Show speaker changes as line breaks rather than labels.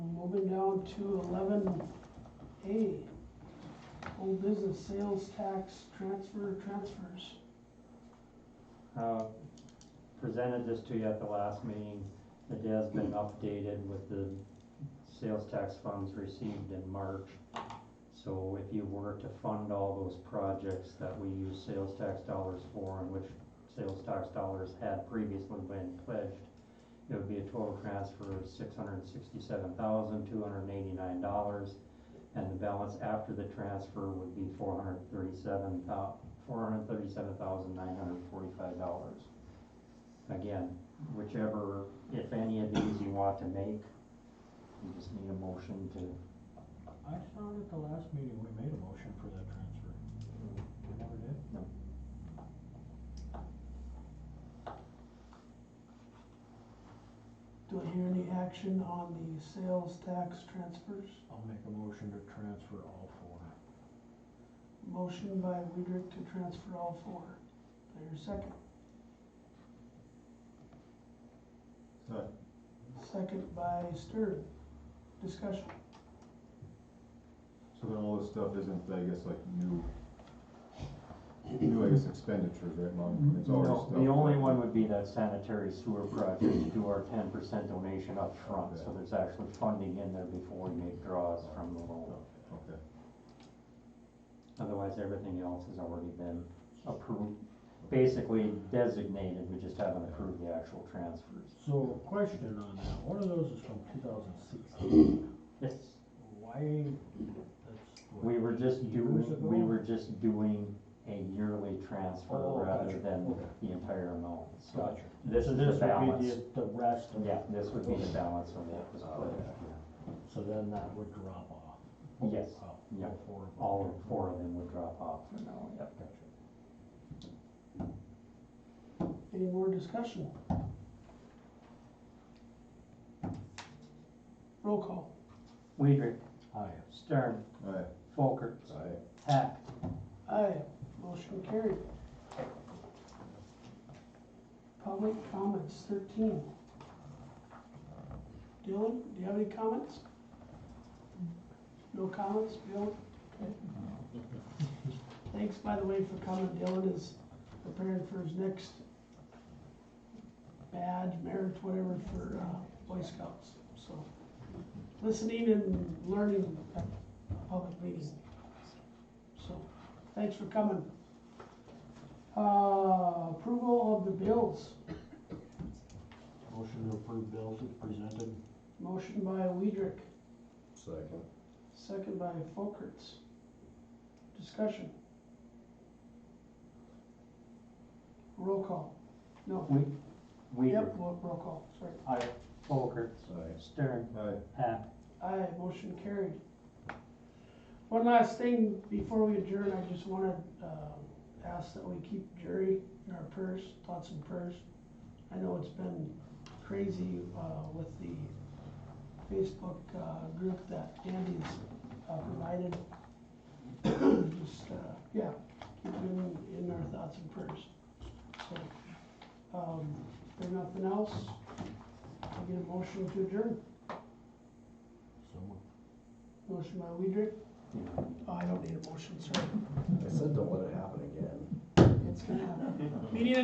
Moving down to eleven A, old business sales tax transfer transfers.
Uh, Presented this to you at the last meeting. It has been updated with the sales tax funds received in March. So if you were to fund all those projects that we use sales tax dollars for and which sales tax dollars had previously been pledged, it would be a total transfer of six hundred and sixty-seven thousand, two hundred and eighty-nine dollars. And the balance after the transfer would be four hundred and thirty-seven thou, four hundred thirty-seven thousand nine hundred forty-five dollars. Again, whichever, if any of these you want to make, you just need a motion to,
I thought at the last meeting, we made a motion for that transfer. We never did?
No.
Do I hear any action on the sales tax transfers?
I'll make a motion to transfer all four.
Motion by Weidrich to transfer all four. Do I hear a second?
Second.
Second by Stern. Discussion.
So then all this stuff isn't, I guess, like new, new, I guess, expenditures, right, Mom? It's all
Mm-hmm. No,
this stuff.
the only one would be that sanitary sewer project, you do our ten percent donation up front, so
Okay.
there's actually funding in there before we make draws from the loan.
Oh, Okay,
Otherwise, everything else has already been approved, basically designated, we just haven't approved the actual transfers.
So, question on that, one of those is from two thousand sixteen,
It's,
why, that's. what,
we were just
eight
doing,
years ago?
we were just doing a yearly transfer
Oh,
rather
gotcha.
than
Okay.
the entire amount, so.
Gotcha.
This
So
is the
would be
balance,
The the rest of.
yeah, this would be the balance of what was pledged,
So then that would drop off.
Yes,
Oh, all
yeah.
four of them.
all four of them would drop off for now, yeah.
Gotcha.
Any more discussion? Roll call.
Weidrich,
Aye.
Stern,
aye.
Folkerts,
Aye.
Hack,
Aye, motion carried. Public comments, thirteen. Dylan, do you have any comments? No comments, Bill? Okay. Thanks, by the way, for coming. Dylan is preparing for his next badge, merit, whatever, for, uh, Boy Scouts, so. Listening and learning at a public meeting, so. Thanks for coming. Uh, approval of the bills,
Motion to approve bills as presented.
motion by Weidrich,
Second.
second by Folkerts. Discussion. Roll call, no,
We,
yep,
Weidrich,
roll roll call, sorry.
Aye, Folkerts,
Aye.
Stern,
Aye.
Hack,
Aye, motion carried. One last thing before we adjourn, I just wanna, uh, ask that we keep Jerry in our prayers, thoughts and prayers. I know it's been crazy, uh, with the Facebook, uh, group that Andy's, uh, provided. Just, uh, yeah, keep him in our thoughts and prayers. So, um, if there's nothing else, I'll get a motion to adjourn.
So moved.
Motion by Weidrich.
you know,
Oh, I don't need a motion, sorry.
I said, don't let it happen again.
It's gonna happen. Meeting